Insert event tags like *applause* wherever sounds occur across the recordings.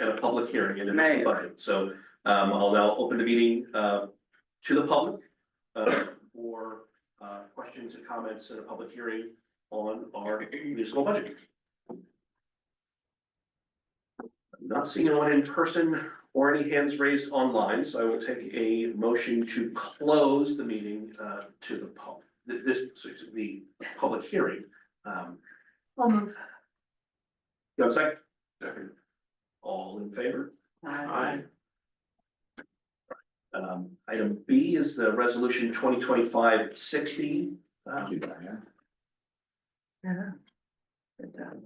and a public hearing and a Right. budget. So um I'll now open the meeting uh to the public uh for uh questions and comments and a public hearing on our municipal budget. Not seeing anyone in person or any hands raised online, so I will take a motion to close the meeting uh to the pub, th- this, excuse me, the public hearing. Um, I'll move. you have a second? Second. All in favor? Um, item B is the resolution 2025-60. Uh, Yeah. Good job.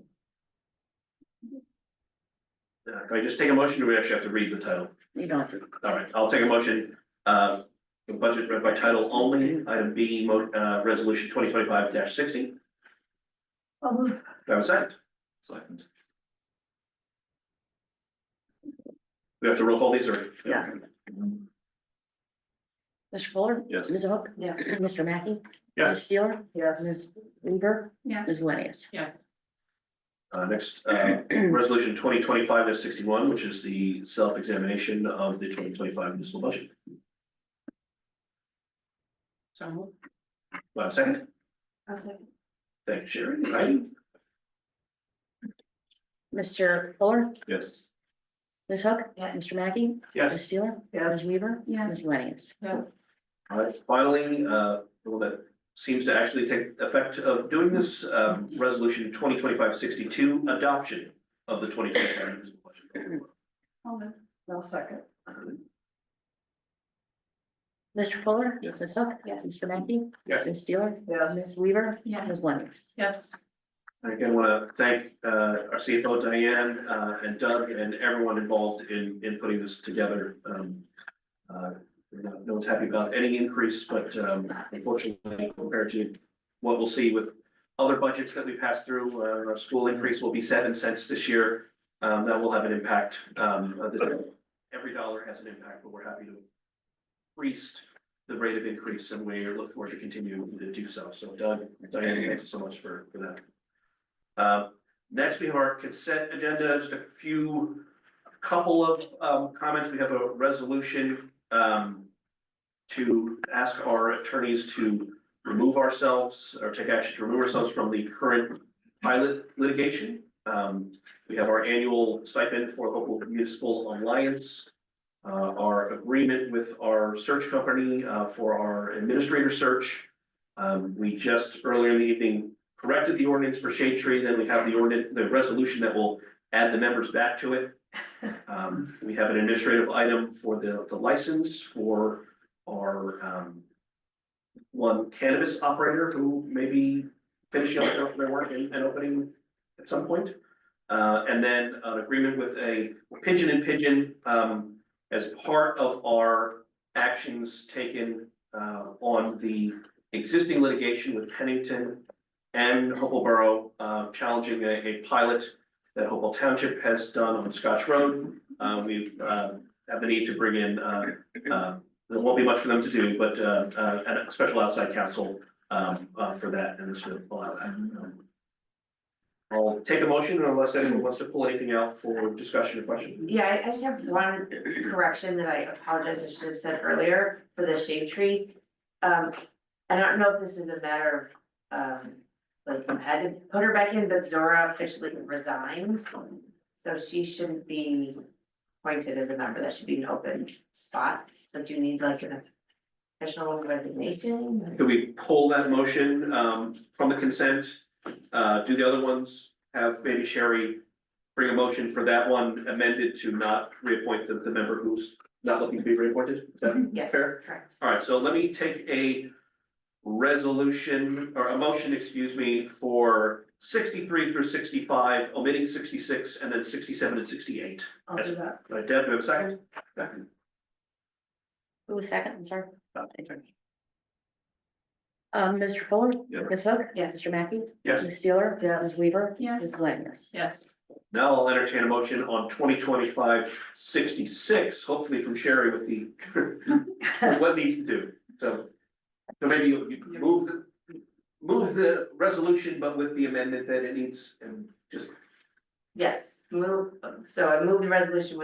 uh, Can I just take a motion, or do we actually have to read the title? You don't have to. All right, I'll take a motion, uh, the budget read by title only, item B, mo- uh, resolution twenty twenty-five sixty. Do I'll move. I have a second? Second. We have to roll call these, or? Yeah. Mr. Fuller? Yes. Ms. Hook? Yes. Mr. Mackey? Ms. Yes, Steeler? Yes. Ms. Weaver? Yes, Ms. Lanius? yes, uh, next, uh, *clears throat* resolution twenty twenty-five sixty-one, which is the self-examination of the twenty twenty-five municipal budget. so moved. Do I have a second? I'll second. Thank you, Sherry. Right? Mr. Fuller? Yes. Ms. Hook? Yes. Mr. Mackey? Ms. Yes. Steeler? Ms. Weaver? Ms. Yes, Lanius? yes, All right, finally, uh, the one that seems to actually take effect of doing this, um, resolution 62 adoption of the twenty twenty five municipal budget. I'll move. I'll second. Mr. Fuller? Yes. Ms. Hook? Yes. Mr. Mackey? Yes. Ms. Steeler? Yes. Ms. Weaver? Yes. Ms. Lanius? yes, And Again, want to thank, uh, our CFO Diane, uh, and Doug and everyone involved in, in putting this together. Um, uh, no no one's happy about any increase, but, um, unfortunately compared to what we'll see with other budgets that we pass through, uh, our school increase will be seven cents this year. Um, that will have an impact, um, uh, this, every dollar has an impact, but we're happy to increase the rate of increase and we look forward to continuing to do so. So Doug, Diane, thanks so much for, for that. Uh, next, we have our consent agenda, just a few, a couple of, um, comments. We have a resolution, um, to ask our attorneys to remove ourselves or take action to remove ourselves from the current pilot litigation. Um, we have our annual stipend for local municipal alliance. uh, our agreement with our search company, uh, for our administrator search. Um, we just earlier in the evening corrected the ordinance for shade tree, then we have the ordinance, the resolution that will add the members back to it. Um, we have an administrative item for the, the license for our, um, one cannabis operator who may be finishing up their- their work and, and opening at some point. Uh, and then an agreement with a pigeon and pigeon, um, as part of our actions taken, uh, on the existing litigation with Pennington and Hopewell Borough, uh, challenging a, a pilot that Hopewell Township has done on Scotch Road. Uh, we've, uh, have the need to bring in, uh, uh, there won't be much for them to do, but, uh, uh, and a special outside counsel, um, uh, for that, and this would allow that. Um, I'll take a motion unless anyone wants to pull anything out for discussion or question. Yeah, I- I just have one correction that I apologize, I should have said earlier for the shade tree. Um, I don't know if this is a matter of, um, like, I had to put her back in, but Zora officially resigned. So she shouldn't be appointed as a member, that should be an open spot, so do you need like an official resignation? Could we pull that motion, um, from the consent? Uh, do the other ones, have maybe Sherry bring a motion for that one amended to not reappoint the, the member who's not looking to be reappointed? Is that Yes, fair? correct. All right, so let me take a resolution, or a motion, excuse me, for sixty-three through sixty-five, omitting sixty-six, and then sixty-seven and sixty-eight. I'll do that. All right, Deb, do you have a second? Second. Who was second? I'm sorry. Uh, Um, Mr. Fuller? Yeah. Ms. Hook? Yes. Mr. Mackey? Yes. Ms. Steeler? Yes. Ms. Weaver? Yes. Ms. Lanius? yes, Now I'll entertain a motion on 2025-66, hopefully from Sherry with the, *laughs* with what needs to do, so. So maybe you, you move the, move the resolution, but with the amendment that it needs, and just, Yes, move, so I move the resolution with